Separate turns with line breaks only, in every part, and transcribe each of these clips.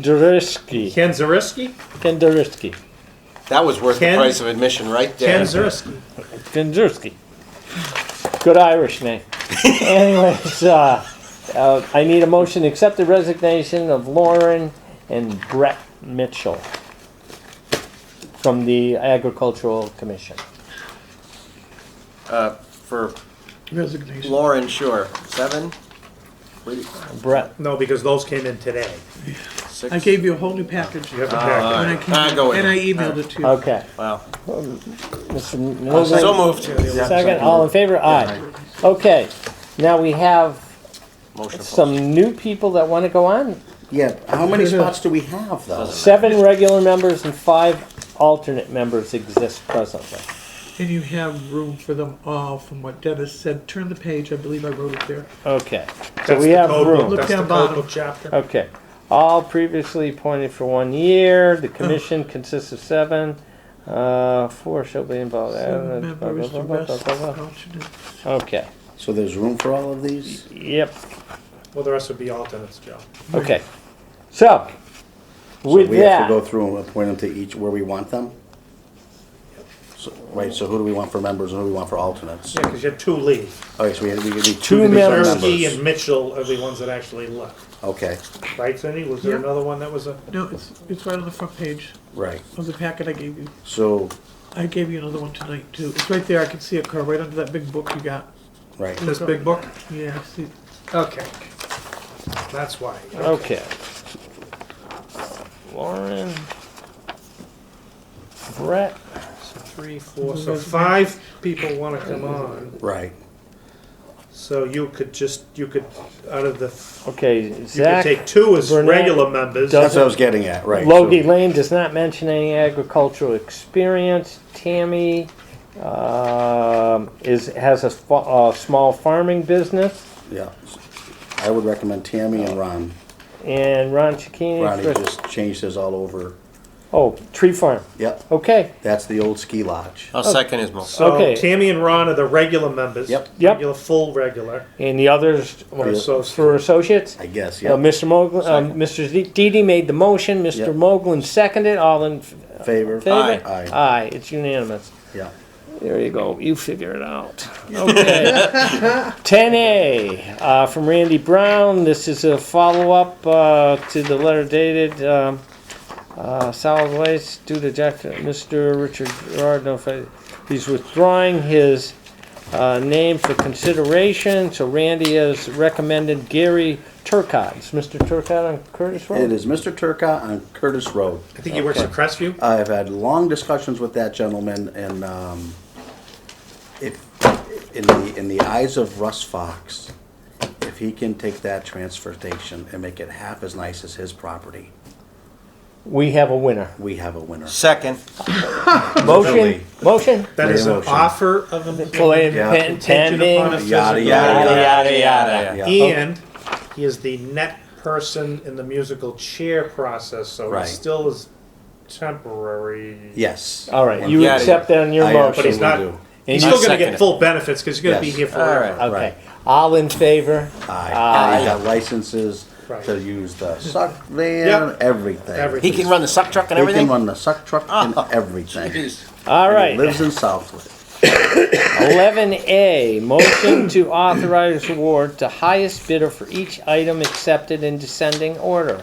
Kandarisky.
Ken Zariski?
Kandarisky.
That was worth
Ken-
the price of admission right there.
Ken Zariski.
Kandarisky. Good Irish name. Anyways, uh, uh, I need a motion to accept the resignation of Lauren and Brett Mitchell from the Agricultural Commission.
Uh, for
Resignation.
Lauren, sure. Seven? Wait,
Brett,
No, because those came in today.
six?
I gave you a whole new package.
You have to
And
pack it.
Uh,
I
Ah,
came,
go
and I
ahead.
emailed it to you.
okay.
Wow.
Mr.
So
Mosley,
moved.
second, all in favor? Aye. Okay, now we have
Motion
Oh.
opposed.
some new people that want to go on.
Yeah, how many spots do we have though?
Seven regular members and five alternate members exist presently.
And you have room for them all, from what Dennis said. Turn the page, I believe I wrote it there.
Okay, so
That's
we
the
have
code book.
room.
That's the
Look down
code
bottom.
book chapter.
Okay, all previously appointed for one year. The commission consists of seven. Uh, four shall be involved.
Seven
Uh, blah,
members,
blah,
the
blah,
rest Oh,
blah, blah, blah.
alternate.
Okay,
So there's room for all of these?
yep,
Well, the rest would be alternates, Joe.
okay. So, with
So we have to go
that,
through and appoint them to each where we want them? So- Right, so who do we want for members and who do we want for alternates?
Yeah, because you had two leave.
Okay, so we have, we need
Two
two division
members.
Zariski
members.
E and Mitchell are the ones that actually left.
Okay,
Right, Cindy? Was there
Yeah.
another one that was a?
No, it's, it's right on the front page
right,
of the packet I gave you.
so,
I gave you another one tonight, too. It's right there, I can see it, Carl, right under that big book you got.
right.
This big book?
Yeah, I see,
Okay. That's why.
okay. Lauren, Brett,
So three, four, so five people want to come on.
Right.
So you could just, you could, out of the,
okay,
you could
Zach.
take two as
Burnett
regular members.
does-
That's what I was getting at, right. so-
Logie Lane does not mention any agricultural experience. Tammy um, is has a, fa- a small farming business,
Yeah. I would recommend Tammy and Ron.
and Ron Chikini.
Ronnie just changed his all over.
oh, tree farm.
Yep,
Okay,
that's the old ski lodge.
I'll Oh, second his motion.
okay.
So Tammy and Ron are the regular members.
Yep.
Yep.
Regular, full regular.
and the others were
Yeah.
for associates.
I guess,
Uh,
yeah.
Mr. Mogul, uh, Mr. Dee- Didi made the motion. Mr.
Yep.
Moglen seconded. All in f-
Favor?
favor?
Aye.
Aye. It's unanimous.
Yeah.
There you go. You figure it out. Okay. 10A uh, from Randy Brown. This is a follow up uh, to the letter dated um, uh, solid waste due to Jack, Mr. Richard Gerard. No, fa- he's withdrawing his uh, name for consideration. So Randy has recommended Gary Turcott. Is Mr. Turcott on Curtis Road?
It is Mr. Turcotte on Curtis Road.
I think he works at Crestview.
I've had long discussions with that gentleman, and um, if in the in the eyes of Russ Fox, if he can take that transfer station and make it half as nice as his property,
We have a winner.
we have a winner.
Second.
Motion. Motion.
That is an
Motion.
offer of employment.
Plan-
Yeah.
pen-
Contingent upon a
Pending.
Yada,
physical-
yada,
Yada, yada, yada.
Yeah.
And he is the net person in the musical chair process, so he
Right.
still is temporary.
Yes.
All right, you
Yeah, yeah.
accept that on your
I
motion.
But he's not,
Sure we do.
he's
Not
still gonna
second
get
it.
full benefits, cause he's gonna be
Yes.
here
Alright.
forever.
Okay, all in favor?
Aye.
Aye.
He's got licenses
Right.
to use the suck van,
Yep.
everything.
Everything. Ah.
He can run the suck truck and
He can
everything?
run the suck truck and everything.
Jeez.
All
And he
right,
Lives in Southwood.
eleven A, motion to authorize award to highest bidder for each item accepted in descending order.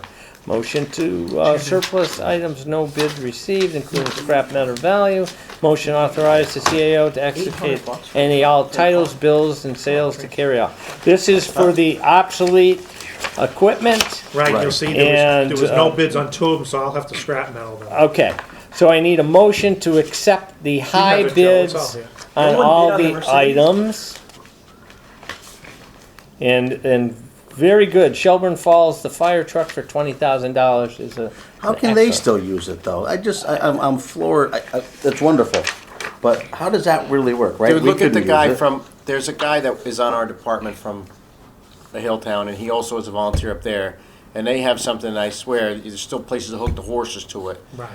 Motion to uh, surplus items, no bid received, including scrap metal value. Motion authorize the CAO to execute any all titles, bills, and sales to carry out. This is for the obsolete equipment.
Right, you'll
Right.
see, there was,
And,
there was no
uh,
bids on two of them, so I'll have to scrap metal them.
Okay, so I need a motion to accept the high
have it, Joe,
bids
it's all here.
on
No one
all
bid on the
the
Mercedes?
items. And, and very good, Shelburne Falls, the fire truck for twenty thousand dollars is a.
How
an
can they
excellent-
still use it though? I just, I, I'm, I'm floored. I, I, that's wonderful, but how does that really work, right?
Dude,
We
look at
couldn't
the
use
guy
it.
from, there's a guy that is on our department from the Hilltown, and he also is a volunteer up there. And they have something, I swear, there's still places to hook the horses to it.
Right.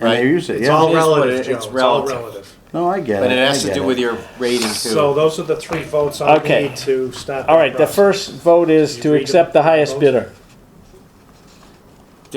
And
right?
they use it.
It's
yeah.
It
all
is what
relative,
it-
Joe, it's
it's
all
relative.
relative.
no, I get it.
But it has
I
to
get
do
it.
with your rating too.
So those are the three votes I
Okay.
need to stop.
All right, the
process.
first vote is
You
to
read
accept
them?
the highest bidder.